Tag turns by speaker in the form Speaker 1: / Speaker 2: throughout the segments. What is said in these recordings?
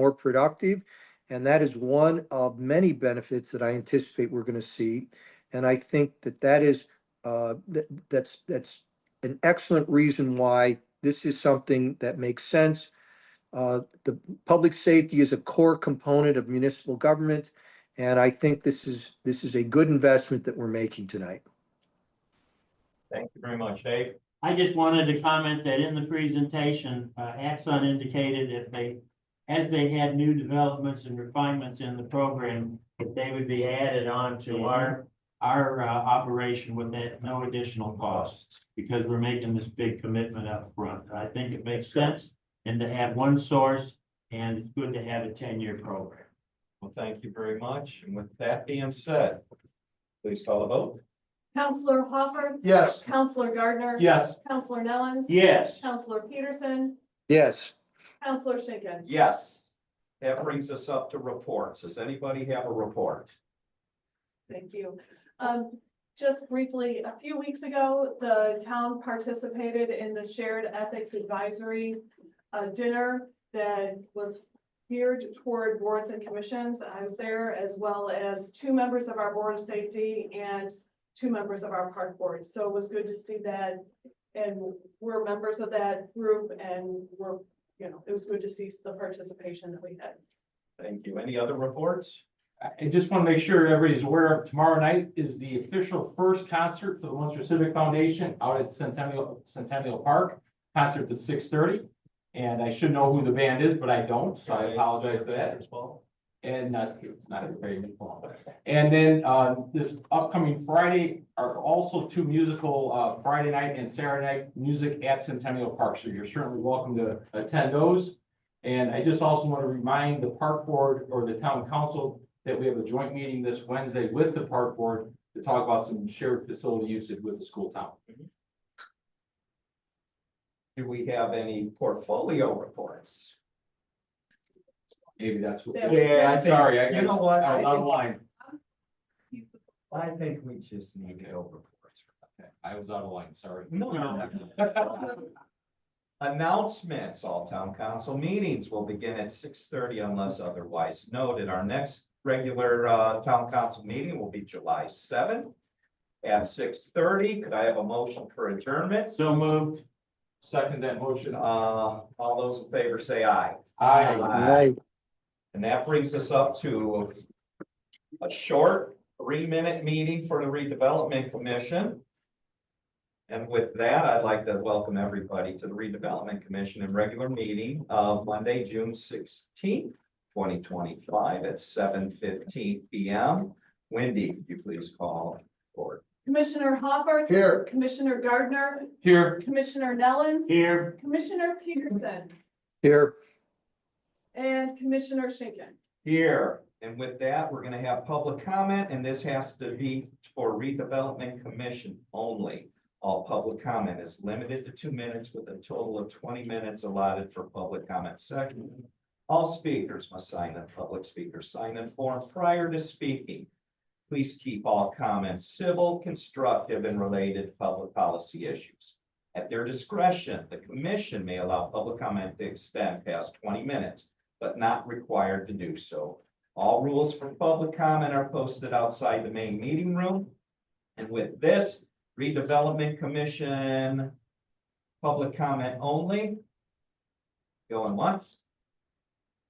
Speaker 1: more productive. And that is one of many benefits that I anticipate we're going to see. And I think that that is, uh, that, that's, that's an excellent reason why this is something that makes sense. Uh, the public safety is a core component of municipal government. And I think this is, this is a good investment that we're making tonight.
Speaker 2: Thank you very much, Dave.
Speaker 3: I just wanted to comment that in the presentation, uh, Axon indicated if they, as they had new developments and refinements in the program, that they would be added on to our, our, uh, operation with that no additional cost, because we're making this big commitment up front. I think it makes sense, and to have one source, and it's good to have a ten-year program.
Speaker 2: Well, thank you very much. And with that being said, please call the vote.
Speaker 4: Counselor Hopper.
Speaker 5: Yes.
Speaker 4: Counselor Gardner.
Speaker 5: Yes.
Speaker 4: Counselor Nellens.
Speaker 3: Yes,
Speaker 4: Counselor Peterson.
Speaker 1: Yes,
Speaker 4: Counselor Schinkin.
Speaker 2: Yes. That brings us up to reports. Does anybody have a report?
Speaker 4: Thank you. Um, just briefly, a few weeks ago, the town participated in the Shared Ethics Advisory uh, dinner that was geared toward boards and commissions. I was there as well as two members of our Board of Safety and two members of our Park Board. So it was good to see that. And we're members of that group and we're, you know, it was good to see the participation that we had.
Speaker 2: Thank you. Any other reports?
Speaker 5: I I just want to make sure everybody's aware, tomorrow night is the official first concert for the Munster Civic Foundation out at Centennial, Centennial Park. Concert at six thirty, and I should know who the band is, but I don't, so I apologize for that.
Speaker 2: as well.
Speaker 5: And not, it's not a very big one. And then, uh, this upcoming Friday are also two musical, uh, Friday night and Saturday night music at Centennial Park. So you're certainly welcome to attend those. And I just also want to remind the park board or the town council that we have a joint meeting this Wednesday with the park board to talk about some shared facility usage with the school town.
Speaker 2: Do we have any portfolio reports?
Speaker 5: Maybe that's what.
Speaker 4: Yeah.
Speaker 2: Yeah, I
Speaker 5: I'm
Speaker 2: think-
Speaker 5: sorry, I
Speaker 2: You
Speaker 5: guess,
Speaker 2: know what? I
Speaker 5: out out of
Speaker 2: think-
Speaker 5: line.
Speaker 2: I think we just need to go reports.
Speaker 5: I was out of line, sorry.
Speaker 2: No, no. Announcements, all town council meetings will begin at six thirty unless otherwise noted. Our next regular uh town council meeting will be July seventh. At six thirty, could I have a motion for adjournment?
Speaker 3: so moved.
Speaker 5: Second that motion.
Speaker 2: Uh, all those in favor say aye.
Speaker 5: Aye.
Speaker 1: I,
Speaker 2: And that brings us up to a short three-minute meeting for the redevelopment commission. And with that, I'd like to welcome everybody to the redevelopment commission and regular meeting of Monday, June sixteenth, twenty twenty-five at seven fifteen P M. Wendy, could you please call for?
Speaker 4: Commissioner Hopper.
Speaker 5: Here.
Speaker 4: Commissioner Gardner.
Speaker 5: Here.
Speaker 4: Commissioner Nellens.
Speaker 3: Here,
Speaker 4: Commissioner Peterson
Speaker 1: here,
Speaker 4: and Commissioner Schinkin.
Speaker 2: Here, and with that, we're gonna have public comment, and this has to be for redevelopment commission only. All public comment is limited to two minutes with a total of twenty minutes allotted for public comment section. All speakers must sign a public speaker sign-in form prior to speaking. Please keep all comments civil, constructive, and related to public policy issues. At their discretion, the commission may allow public comment to extend past twenty minutes but not required to do so. All rules for public comment are posted outside the main meeting room. And with this redevelopment commission, public comment only. Going once.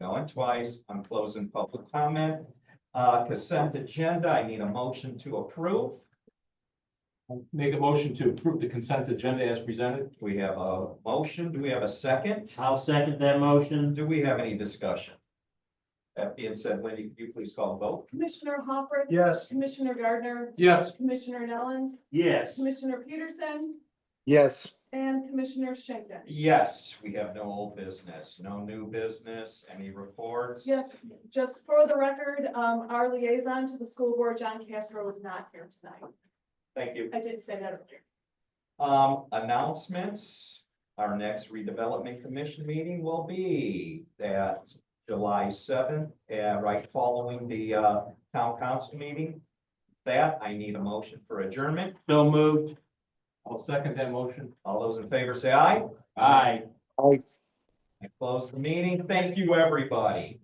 Speaker 2: Going twice. I'm closing public comment. Uh, consent agenda, I need a motion to approve.
Speaker 5: Make a motion to approve the consent agenda as presented.
Speaker 2: We have a motion. Do we have a second?
Speaker 3: I'll second that motion.
Speaker 2: Do we have any discussion? That being said, Wendy, could you please call the vote?
Speaker 4: Commissioner Hopper.
Speaker 5: Yes.
Speaker 4: Commissioner Gardner.
Speaker 5: Yes.
Speaker 4: Commissioner Nellens.
Speaker 3: Yes.
Speaker 4: Commissioner Peterson
Speaker 1: yes.
Speaker 4: and Commissioner Schinkin.
Speaker 2: Yes, we have no old business, no new business, any reports?
Speaker 4: Yes, just for the record, um, our liaison to the school board, John Castro, was not here tonight.
Speaker 2: Thank you.
Speaker 4: I did say that earlier.
Speaker 2: Um, announcements, our next redevelopment commission meeting will be that July seventh, uh, right following the, uh, town council meeting. That, I need a motion for adjournment.
Speaker 3: So moved.
Speaker 5: I'll second that motion.
Speaker 2: All those in favor say aye.
Speaker 3: Aye.
Speaker 1: I
Speaker 2: I close the meeting. Thank you, everybody.